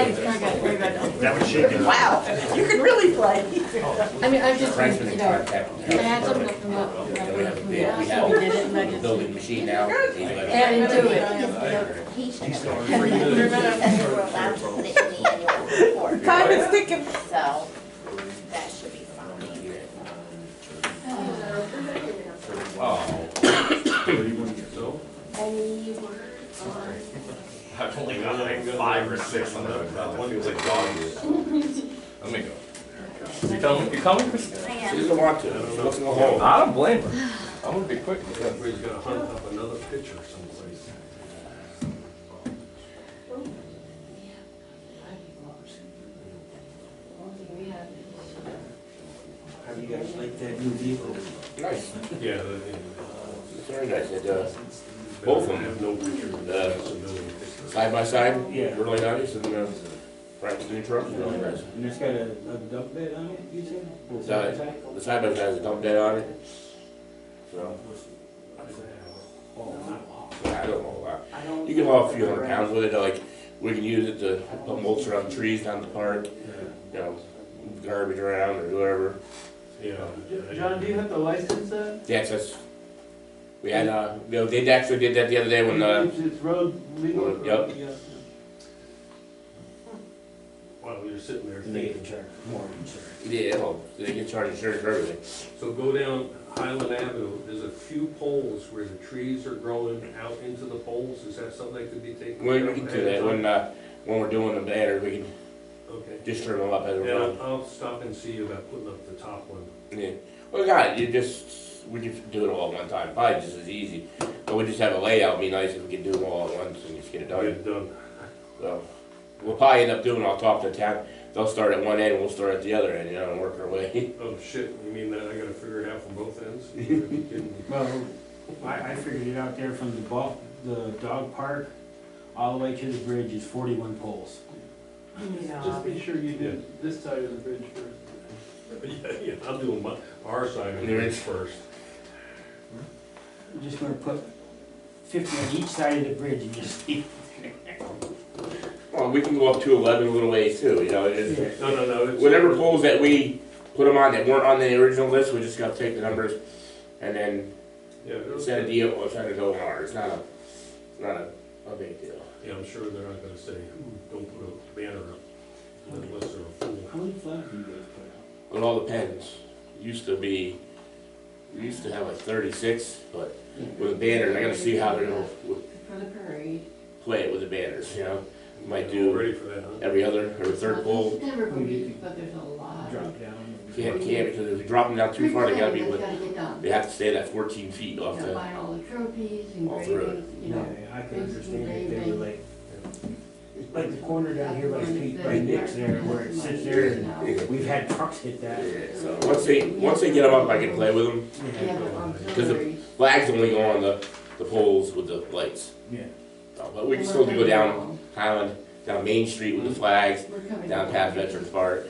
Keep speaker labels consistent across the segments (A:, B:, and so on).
A: That was shaking.
B: Wow, you can really play.
C: I mean, I've just,
D: Frank's been
C: you
D: in
C: know,
D: charge of
C: I had
D: that.
C: something to come up, and I
D: We have a
C: wouldn't come up, so we did it,
D: bid, we
C: and I
D: have a
C: just.
D: building machine now. He's let us-
C: And do it.
E: We're allowed to put it in the annual report.
B: Time is ticking.
E: So that should be fine.
D: Oh,
A: Thirty-one years old?
E: Any words on?
F: I've only got like five or six on the, that one was like dogs. Let me go. You coming, you coming, Chris?
E: I
F: She
E: am.
F: doesn't want to, she wants to go home. I don't blame her. I'm gonna be quick.
G: Everybody's gonna hunt up another picture someplace.
H: How do you guys like that new vehicle?
D: Nice.
G: Yeah.
D: It's Very nice. It, uh,
G: Both of them have no picture of that. It's a million pictures.
D: side by side.
H: Yeah.
D: Really nice and, uh, Frank's new truck, really nice.
H: And it's got a, a dump bed on it, you said? Or
D: Side.
H: something?
D: The side by side has a dump bed on it. So,
H: Oh, wow.
D: I don't know a lot.
H: I don't-
D: You can haul a few hundred pounds with it, like, we can use it to put mulch around trees down the park, you know, move garbage around or whatever.
G: Yeah.
I: John, do you have to license that?
D: Yes, that's, we had, uh, you know, they actually did that the other day when, uh,
I: It's it's road legal?
D: Yep.
G: While we were sitting there
H: And they
G: thinking.
H: can charge more insurance.
D: yeah, well, they can charge insurance for everything.
G: So go down Highland Avenue, there's a few poles where the trees are growing out into the poles. Is that something that could be taken?
D: We,
G: care
D: we
G: of
D: can
G: ahead
D: do
G: of
D: that
G: time?
D: when, uh, when we're doing the banner, we can
G: Okay.
D: just turn them up as
G: And
D: we're going.
G: I'll, I'll stop and see about putting up the top one.
D: Yeah, well, God, you just, we just do it all at one time, probably just as easy. But we just have a layout, it'd be nice if we could do them all at once and just get it
G: Get
D: done.
G: it done.
D: So, we'll probably end up doing, I'll talk to town, they'll start at one end, we'll start at the other end, you know, and work our way.
G: Oh, shit, you mean that I gotta figure it out from both ends? You gotta be kidding me.
H: Well, I, I figured it out there from the ball, the dog park, all the way to the bridge is forty-one poles.
C: uh,
I: Just be sure you do this side of the bridge first.
G: Yeah, yeah, I'll do my, our side of
D: There
G: it
D: is-
G: first.
H: I'm just gonna put fifty on each side of the bridge and just.
D: Well, we can go up to eleven a little ways too, you know, it's,
G: No, no, no. it's-
D: whatever poles that we put them on that weren't on the original list, we just gotta take the numbers and then
G: Yeah, it'll-
D: set a deal, or set a go hard, it's not a, it's not a, a big deal.
G: yeah, I'm sure they're not gonna say, "Ooh, don't put a banner up unless they're a fool.
H: How many flags do you guys put out?
D: It all depends. Used to be, we used to have like thirty-six, but with the banners, I gotta see how they're gonna w-
C: For the parade.
D: play it with the banners, you know? Might
G: Yeah,
D: do-
G: Ready for that, huh?
D: Every other, or third pole,
C: Everybody, but there's a lot.
H: Drop down. and-
D: can't, can't, because if you drop them down too far, they gotta be, with-
C: Gotta get done.
D: they have to stay that fourteen feet off
C: Gotta
D: the,
C: buy all the trophies,
D: All through it.
C: engravings, you know.
H: Yeah, I can understand if they were like, like the corner down here by Pete, by Nick's there, where it sits there, and we've had trucks hit that.
D: Yeah, so, once they, once they get them up, I can play with them.
C: Yeah, but
D: Because the-
C: auxiliaries.
D: Flags only go on the, the poles with the lights.
H: Yeah.
D: So, But we can still go down Highland, down Main Street with the flags,
C: We're coming.
D: down past Veterans Park.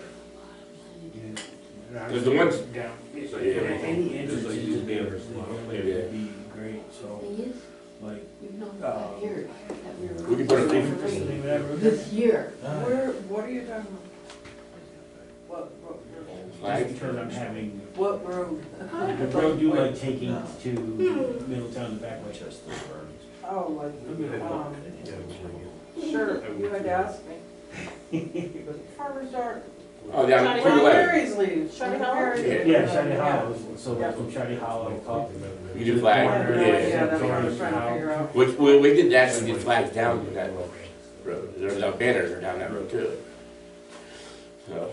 H: Yeah.
D: There's the ones-
H: Down.
G: It's like-
D: Yeah.
H: Any entrance
G: Just like
H: into the
G: these
H: banners,
G: banners, a lot of
H: would
G: places.
D: Yeah.
H: be great, so,
C: Thing is,
H: like,
C: we've known for five years that we were.
D: We can put a
C: going to
D: thing-
C: parade
H: something, whatever.
C: This year.
I: Where, what are you talking about? What, what,
D: Flags.
H: Just because I'm having,
I: what road?
H: the road do like taking to Middletown, the back way.
I: Oh, like,
G: I mean, I don't-
I: um,
G: yeah, I'm sure you-
I: sure, you had to ask me. Farmer's Dark.
D: Oh, down to the left.
I: Mary's leaves. Shiny Mary's.
D: Yeah.
H: Yeah, Shady Hollow, so like from Shady Hollow up.
D: You do flag,
I: I have no
D: yeah.
I: idea, that's what I was
H: George
I: trying to
H: Howe.
I: figure out.
D: We, we, we did actually get flags down that road, there's no banners are down that road too. So,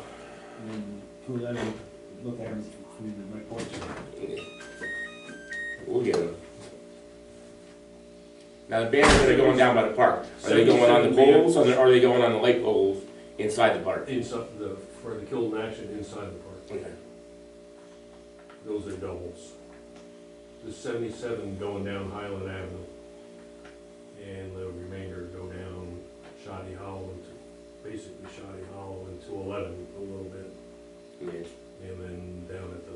H: And then two eleven, look at them from my porch.
D: yeah. we'll get them. Now the banners that are going down by the park, are they going on the poles, or are they going on the light poles inside the park?
G: Inside the, for the kill and action inside the park,
D: Okay.
G: those are doubles. The seventy-seven going down Highland Avenue. And the remainder go down Shoddy Hollow into, basically Shoddy Hollow into eleven a little bit.
D: Yeah.
G: And then down at the